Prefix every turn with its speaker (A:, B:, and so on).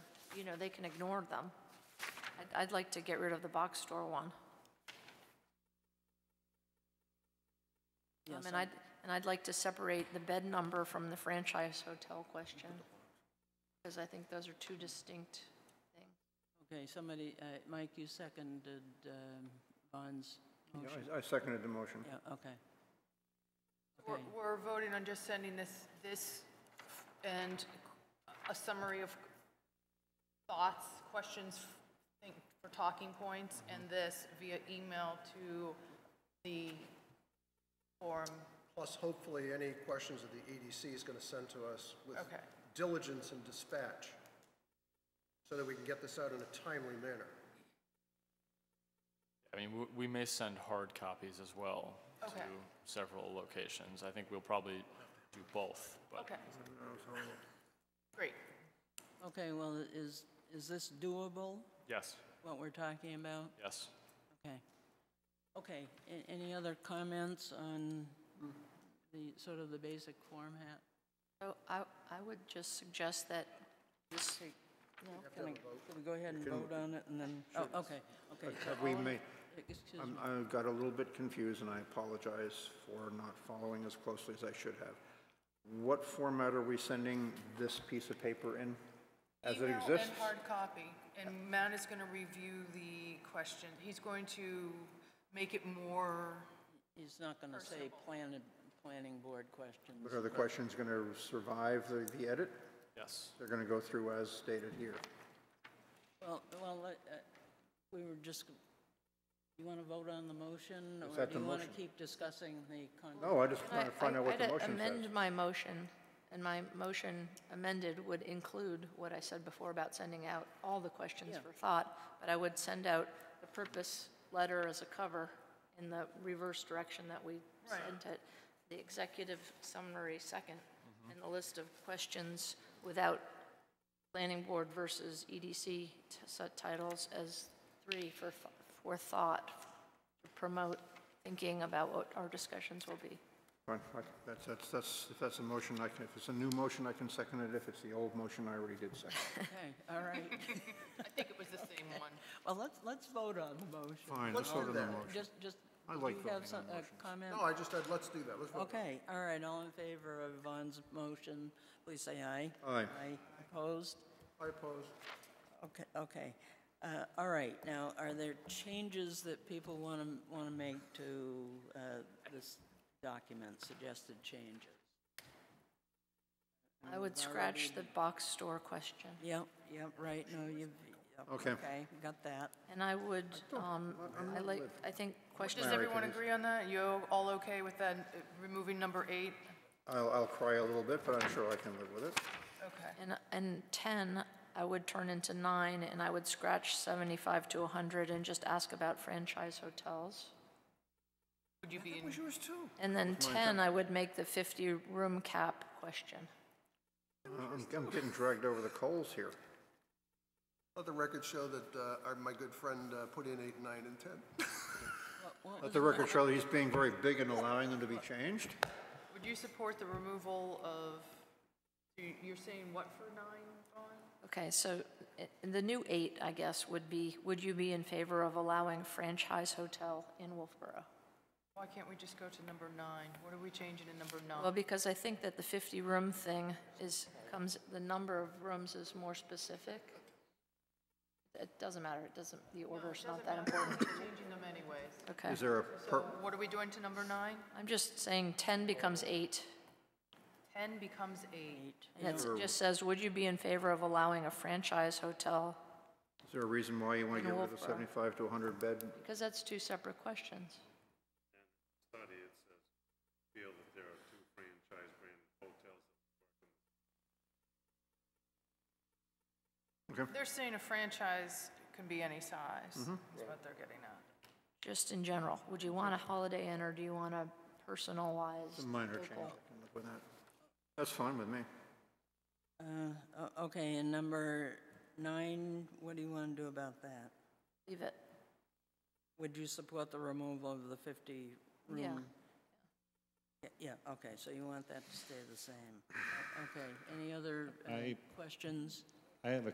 A: you know, they can ignore them. I'd- I'd like to get rid of the box store one. Um, And I'd, and I'd like to separate the bed number from the franchise hotel question, because I think those are two distinct things.
B: Okay, somebody, uh, Mike, you seconded um, Vaughn's
C: Yeah,
B: motion?
C: I I seconded the motion.
B: Yeah, okay.
D: We're,
B: Okay.
D: we're voting on just sending this, this and a summary of thoughts, questions, think, for talking points,
C: Mm-hmm.
D: and this via email to the forum.
E: Plus, hopefully, any questions that the EDC is going to send to us with
D: Okay.
E: diligence and dispatch, so that we can get this out in a timely manner.
F: I mean, w- we may send hard copies as well to
D: Okay.
F: several locations. I think we'll probably do both, but
D: Okay. Great.
B: Okay, well, is, is this doable,
F: yes,
B: what we're talking about?
F: yes.
B: Okay. Okay, a- any other comments on the, sort of the basic format?
A: So I, I would just suggest that,
B: Can I- can we go ahead and vote on it and then, oh, okay, okay. so
C: We
B: all in-
C: may,
B: Excuse me,
C: uh, I'm- I got a little bit confused, and I apologize for not following as closely as I should have. What format are we sending this piece of paper in? As it
D: Email
C: exists?
D: and hard copy, and Matt is going to review the question. He's going to make it more,
B: he's not going to say planning, planning board questions.
C: But are the questions going to survive the the edit?
F: Yes.
C: They're going to go through as stated here.
B: Well, well, let- uh, we were just, you want to vote on the motion?
C: Is that the
B: Or do you want to
C: motion?
B: keep discussing the content?
C: No, I just
A: I-
C: want to find out what the
A: I'd
C: motion says.
A: amend my motion, and my motion amended would include what I said before about sending out all the questions for thought, but I would send out the purpose letter as a cover in the reverse direction that we sent it, the executive summary second, and the list of questions without planning board versus EDC t- set titles as three for, f- for thought, to promote thinking about what our discussions will be.
C: Fine, I- That's, that's, that's, if that's a motion, I can, if it's a new motion, I can second it. If it's the old motion, I already did second. it.
B: Okay, all right.
D: I think it was the same one.
B: Well, let's, let's vote on the motion.
C: Fine, let's vote on the motion.
B: Just, just,
C: I
B: do
C: like
B: you have
C: voting
B: some,
C: on
B: a
C: motions.
B: comment?
E: No, I just, said let's do that, let's vote.
B: Okay, all right, all in favor of Yvonne's motion, please say aye.
C: Aye.
B: Aye, opposed?
E: I oppose.
B: Okay, okay. Uh, All right, now, are there changes that people want to, want to make to uh, this document, suggested changes?
A: I would scratch the box store question,
B: Yep, yep, right, no, you've, yep,
C: Okay.
B: okay, got that.
A: and I would, um, I like, I think question,
D: Does everyone agree on that? You all okay with that, uh, removing number eight?
C: I'll, I'll cry a little bit, but I'm sure I can live with it.
D: Okay.
A: and, and 10, I would turn into 9, and I would scratch 75 to 100 and just ask about franchise hotels.
D: Would you be in?
E: Yours too.
A: And then 10, I would make the 50-room cap question.
C: I'm, I'm getting dragged over the coals here.
E: Let the record show that uh, our- my good friend uh, put in eight, nine, and 10.
B: What- what
C: Let
B: was
C: the
B: it?
C: record show that he's being very big and allowing them to be changed.
D: Would you support the removal of, you- you're saying what for nine, Vaughn?
A: Okay, so i- the new 8, I guess, would be, would you be in favor of allowing franchise hotel in Wolfboro?
D: Why can't we just go to number nine? What are we changing in number
A: Well,
D: nine?
A: because I think that the 50-room thing is, comes, the number of rooms is more specific. It doesn't matter, it doesn't, the order's not that important.
D: We're changing them anyways.
A: Okay.
C: Is there a per,
D: So what are we doing to number nine?
A: I'm just saying 10 becomes 8.
D: 10 becomes eight.
A: And it just says, would you be in favor of allowing a franchise hotel?
C: is there a reason why you want to
A: In
C: get rid of
A: Wolfboro.
C: seventy-five to hundred bed?
A: Because that's two separate questions.
G: study, it says, feel that there are two franchise brand hotels
C: Okay,
D: They're saying a franchise can be any size, is what they're getting at.
A: Just in general, would you want a Holiday Inn or do you want a personalized?
C: it's a minor change. I
A: local?
C: can live with that. That's fine with me.
B: Uh, o- Okay, and number nine, what do you want to do about that?
A: Leave it,
B: Would you support the removal of the 50 room?
A: yeah.
B: Y- Yeah, okay, so you want that to stay the same. O- Okay, any other uh,
H: I-
B: questions?
H: I have a